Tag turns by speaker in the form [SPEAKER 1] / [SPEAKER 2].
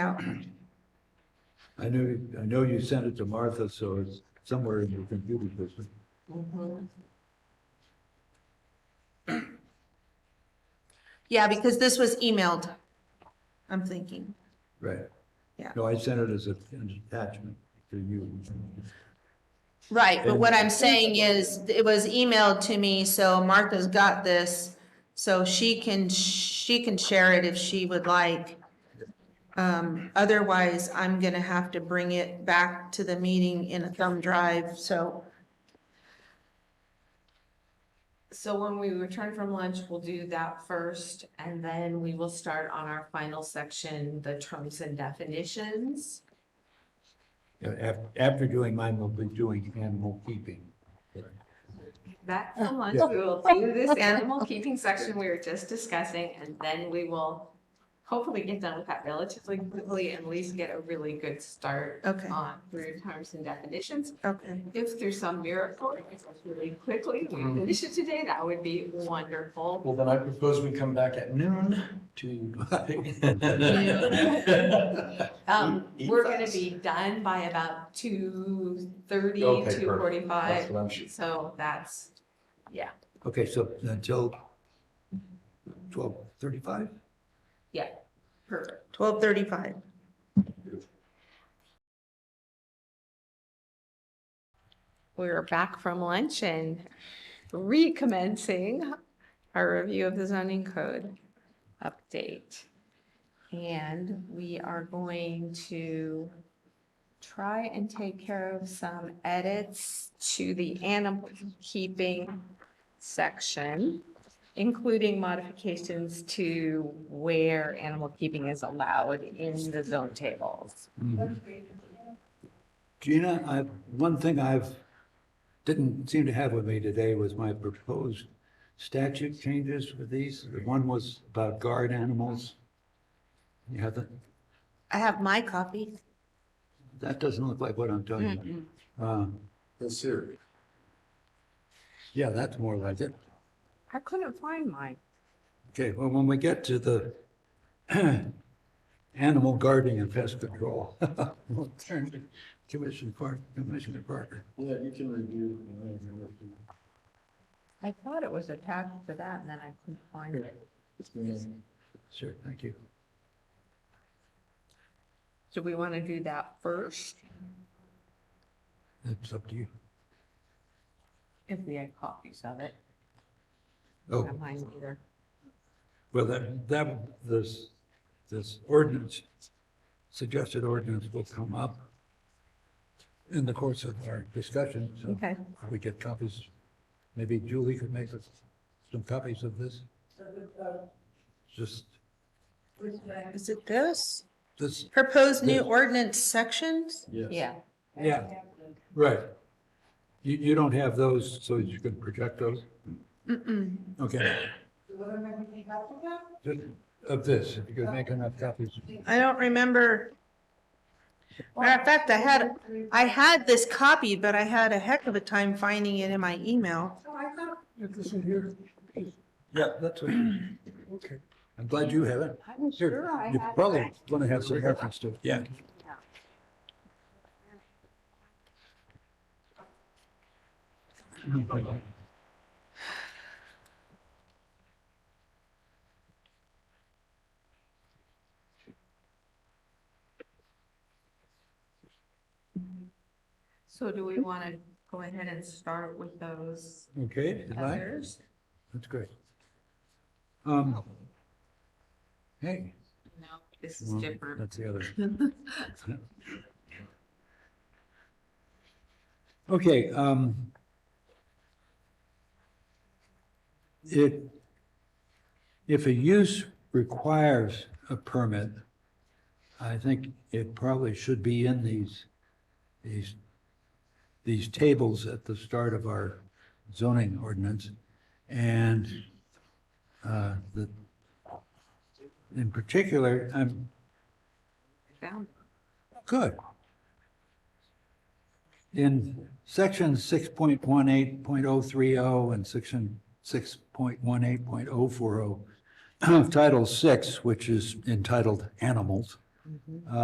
[SPEAKER 1] out.
[SPEAKER 2] I know, I know you sent it to Martha, so it's somewhere in your computer system.
[SPEAKER 1] Yeah, because this was emailed, I'm thinking.
[SPEAKER 2] Right.
[SPEAKER 1] Yeah.
[SPEAKER 2] No, I sent it as a- an attachment to you.
[SPEAKER 1] Right, but what
[SPEAKER 2] And-
[SPEAKER 1] I'm saying is, it was emailed to me, so Martha's got this, so she can, she can share it if she would like. Um, otherwise, I'm gonna have to bring it back to the meeting in a thumb drive, so,
[SPEAKER 3] So when we return from lunch, we'll do that first, and then we will start on our final section, the terms and definitions.
[SPEAKER 2] After, after doing mine, we'll be doing animal keeping.
[SPEAKER 3] Back from lunch, we will do this animal keeping section we were just discussing, and then we will hopefully get done with that relatively quickly and at least get a really good start
[SPEAKER 1] okay,
[SPEAKER 3] on through terms and definitions.
[SPEAKER 1] okay.
[SPEAKER 3] If through some miracle, it's really quickly, we finish it today, that would be wonderful.
[SPEAKER 4] Well, then I propose we come back at noon to.
[SPEAKER 3] Um,
[SPEAKER 4] Eat
[SPEAKER 3] we're gonna
[SPEAKER 4] fast.
[SPEAKER 3] be done by about two thirty,
[SPEAKER 4] Okay,
[SPEAKER 3] two
[SPEAKER 4] perfect. That's
[SPEAKER 3] forty-five,
[SPEAKER 4] what I'm shooting.
[SPEAKER 3] so that's,
[SPEAKER 2] Okay, so until twelve thirty-five?
[SPEAKER 3] yeah, perfect.
[SPEAKER 1] Twelve thirty-five.
[SPEAKER 3] We're back from lunch and recommencing our review of the zoning code update. And we are going to try and take care of some edits to the animal keeping section, including modifications to where animal keeping is allowed in the zone tables.
[SPEAKER 2] Gina, I, one thing I've, didn't seem to have with me today was my proposed statute changes for these. The one was about guard animals. You have the,
[SPEAKER 1] I have my copy.
[SPEAKER 2] that doesn't look like what I'm talking about. Uh,
[SPEAKER 4] Yes, sir.
[SPEAKER 2] Yeah, that's more like it.
[SPEAKER 3] I couldn't find mine.
[SPEAKER 2] Okay, well, when we get to the animal guarding and pest control, we'll turn to Commissioner Parker, Commissioner Parker.
[SPEAKER 4] Yeah, you can review.
[SPEAKER 3] I thought it was attached to that and then I couldn't find it.
[SPEAKER 2] Sure, thank you.
[SPEAKER 3] Do we want to do that first?
[SPEAKER 2] It's up to you.
[SPEAKER 3] If we had copies of it,
[SPEAKER 2] Oh,
[SPEAKER 3] not mine either.
[SPEAKER 2] well, that, that, this, this ordinance, suggested ordinance will come up in the course of our discussion, so
[SPEAKER 3] Okay.
[SPEAKER 2] if we get copies. Maybe Julie could make us some copies of this? Just,
[SPEAKER 1] Is it this?
[SPEAKER 2] this,
[SPEAKER 1] Proposed new
[SPEAKER 2] Yes.
[SPEAKER 1] ordinance sections?
[SPEAKER 3] Yeah,
[SPEAKER 2] yeah. Right. You, you don't have those, so you can project those?
[SPEAKER 1] Mm-mm.
[SPEAKER 2] Okay. Just Of this, if you could make enough copies.
[SPEAKER 1] I don't remember. Matter of fact, I had, I had this copy, but I had a heck of a time finding it in my email.
[SPEAKER 2] This in here? Yeah, that's what. Okay. I'm glad you have it.
[SPEAKER 3] I'm sure I
[SPEAKER 2] You
[SPEAKER 3] have.
[SPEAKER 2] probably want to have some reference to it. Yeah.
[SPEAKER 3] So do we want to go ahead and start with those
[SPEAKER 2] Okay, did I?
[SPEAKER 3] others?
[SPEAKER 2] That's great. Um, hey.
[SPEAKER 3] No, this is
[SPEAKER 2] well,
[SPEAKER 3] different.
[SPEAKER 2] That's the other. Okay, um. It, if a use requires a permit, I think it probably should be in these, these, these tables at the start of our zoning ordinance. And, uh, the, in particular, I'm,
[SPEAKER 3] Found
[SPEAKER 2] Good. In section six point one eight point oh three oh and section six point one eight point oh four oh of Title Six, which is entitled Animals,